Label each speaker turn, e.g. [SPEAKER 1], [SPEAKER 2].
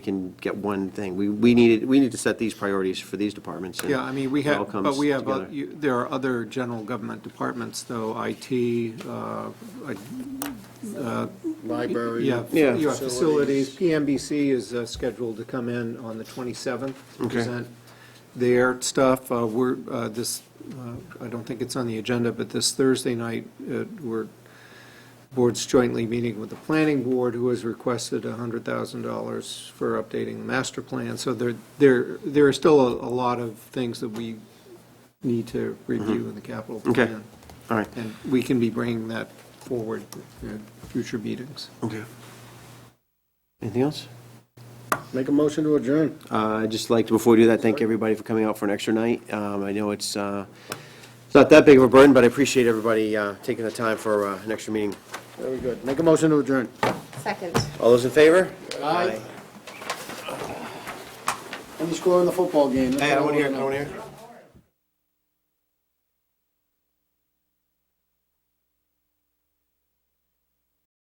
[SPEAKER 1] can get one thing. We, we needed, we need to set these priorities for these departments. and
[SPEAKER 2] Yeah, I mean, we
[SPEAKER 1] it all
[SPEAKER 2] have,
[SPEAKER 1] comes
[SPEAKER 2] but we have, uh,
[SPEAKER 1] together.
[SPEAKER 2] you- there are other general government departments, though, IT, uh, I-
[SPEAKER 3] Library.
[SPEAKER 2] yeah,
[SPEAKER 1] Yeah.
[SPEAKER 2] you have facilities. PMBC is uh, scheduled to come in on the 27th to
[SPEAKER 1] Okay.
[SPEAKER 2] present their stuff. Uh, We're, uh, this, uh, I don't think it's on the agenda, but this Thursday night, uh, we're, board's jointly meeting with the planning board, who has requested $100,000 for updating the master plan. So there, there, there are still a a lot of things that we need to review in the capital
[SPEAKER 1] Mm-hmm. Okay.
[SPEAKER 2] plan.
[SPEAKER 1] All right.
[SPEAKER 2] And we can be bringing that forward in future meetings.
[SPEAKER 1] Okay. Anything else?
[SPEAKER 3] Make a motion to adjourn.
[SPEAKER 1] Uh, I'd just like to, before we do that, thank everybody for coming out for an extra night. Um, I know it's, uh, it's not that big of a burden, but I appreciate everybody uh, taking the time for uh, an extra meeting.
[SPEAKER 3] Very good. Make a motion to adjourn.
[SPEAKER 4] Second.
[SPEAKER 1] All those in favor?
[SPEAKER 3] Aye. Any score in the football game?
[SPEAKER 1] Hey, I don't want to hear, it, I don't want to hear. it.